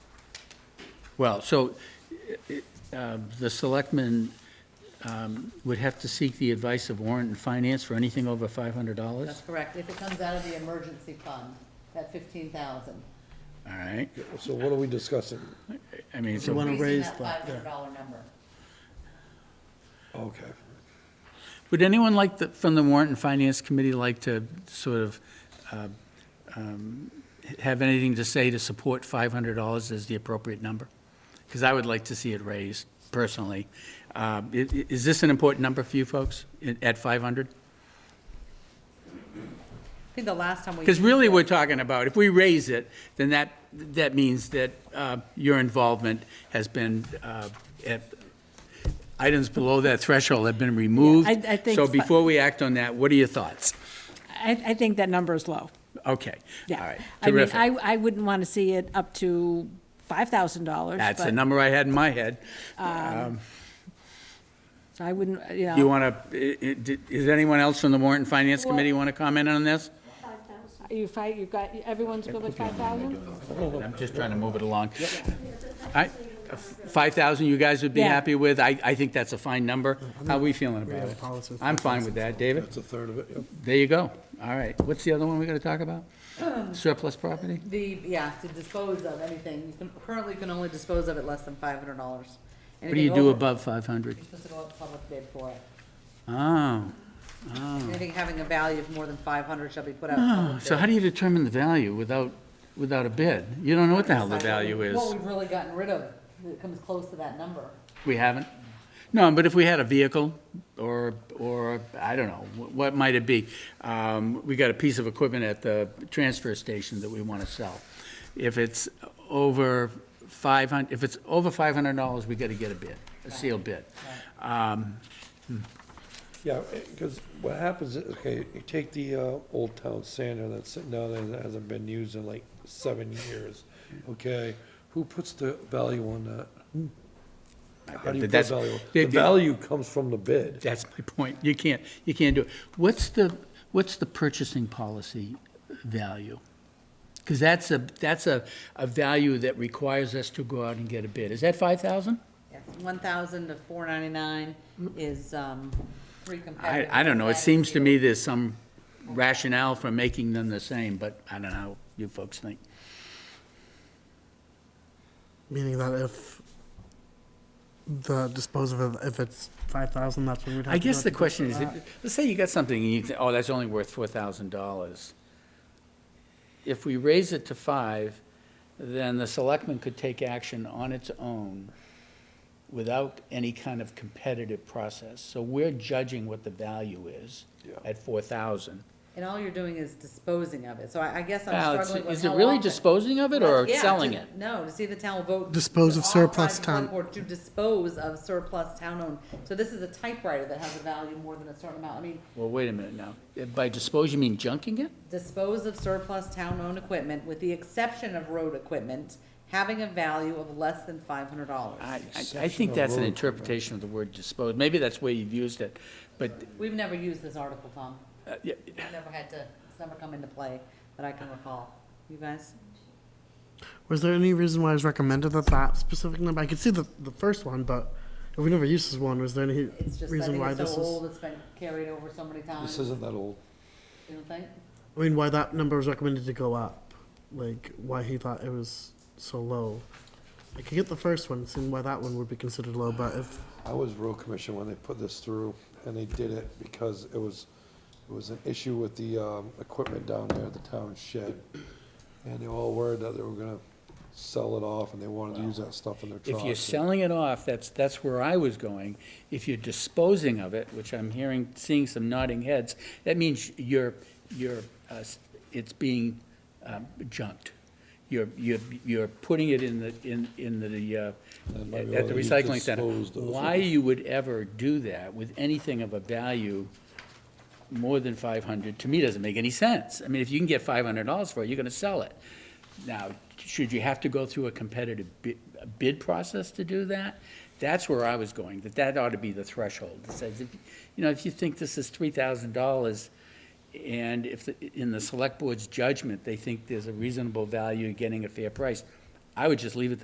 Well, so uh, the selectmen um, would have to seek the advice of warrant and finance for anything over $500? All That's correct, if it comes out of the emergency fund, that fifteen thousand. right, So what are we discussing? I mean, You so, wanna raise That the- five hundred dollar number. Okay. would anyone like, the- from the warrant and finance committee, like to sort of um, um, have anything to say to support $500 as the appropriate number? Because I would like to see it raised personally. Um, i- i- Is this an important number for you folks, i- at 500? I think the last time we. Because really, we're talking about, if we raise it, then that, that means that uh, your involvement has been, uh, at, items below that threshold have been removed. I- I think So fi- before we act on that, what are your thoughts? I, I think that number is low, Okay, all yeah. right, I mean, I, terrific. I wouldn't want to see it up to five thousand dollars. That's the number I had in my head. I wouldn't, you You know, want to, is anyone else from the Warrant and Finance Committee want to comment on this? you fight, you've got, everyone's good with five thousand? I'm just trying to move it along. I- 5,000 you guys would be Yeah. happy with? I, I think that's a fine number. How are we feeling about it? I'm fine with that, David. That's a third of it, yep. There you go. All right. What's the other one we're going to talk about? Surplus property? The, yeah, to dispose of anything, you can, currently you can only dispose of it less than five hundred dollars. What do you do above 500? You're supposed to go out to public bid for it. Oh, Anything having a value of more than five hundred shall be put out. to oh, public so bid. how do you determine the value without, without a bid? You don't know what the hell the value is. What we've really gotten rid of, that comes close to that number. We haven't? No, but if we had a vehicle, or, or, I don't know, wh- what might it be? Um, We got a piece of equipment at the transfer station that we want to sell. If it's over 500, if it's over $500, we got to get a bid, a sealed bid. Um, Yeah, because what happens is, okay, you take the uh, old town sander that's sitting down there that hasn't been used in like seven years, okay? Who puts the value on that? How do you put That's- value? they- The they- value comes from the bid. That's my point. You can't, you can't do it. What's the, what's the purchasing policy value? Because that's a, that's a, a value that requires us to go out and get a bid. Is that 5,000? Yes, one thousand to four ninety-nine is, um, free I, competitive. I don't know, it bid seems to deal. me there's some rationale for making them the same, but I don't know how you folks think. Meaning that if the disposal, if it's five thousand, that's what we'd have. I to guess go the to question is, for that. if- let's say you got something and you think, oh, that's only worth four thousand dollars. If we raise it to five, then the selectmen could take action on its own without any kind of competitive process. So we're judging what the value is Yeah. at four thousand. And all you're doing is disposing of it, so I, I guess Now, I'm it's- struggling with is it how really often- disposing of it or Yeah, to- selling it? No, to see if the town will vote. Dispose of to authorize surplus the select town- board To dispose of surplus town-owned, so this is a typewriter that has a value more than a certain amount, I mean, Well, wait a minute now. By dispose, you mean junking it? dispose of surplus town-owned equipment with the exception of road equipment having a value of less than five hundred dollars. I, I- I think that's an interpretation of the word dispose. Maybe that's where you've used it, but, We've never used this article, Tom. uh, yeah, We've never had to, it's never come into play that I can recall. You guys? Was there any reason why it was recommended that that specific number? I could see the the first one, but if we never used this one, was there any It's just, I reason think why it's this so is? old, it's been carried over so many times, This you isn't that old. don't think? I mean, why that number was recommended to go up? Like, why he thought it was so low? I could get the first one, seeing why that one would be considered low, but if I was road commission when they put this through, and they did it because it was, it was an issue with the, um, equipment down there at the town shed. And they all worried that they were gonna sell it off, and they wanted to use that stuff in their trucks. if you're selling it off, that's, that's where I was going. If you're disposing of it, which I'm hearing, seeing some nodding heads, that means you're, you're, uh, s- it's being um, junked. You're, you're, you're putting it in the, in, in the, uh, And maybe at the you recycling center. disposed of it. Why you would ever do that with anything of a value more than five hundred, to me, doesn't make any sense. I mean, if you can get five hundred dollars for it, you're gonna sell it. Now, should you have to go through a competitive bid, a bid process to do that? That's where I was going, that that ought to be the threshold. It says, if, you know, if you think this is three thousand dollars, and if, the- in the select board's judgment, they think there's a reasonable value getting a fair price, I would just leave it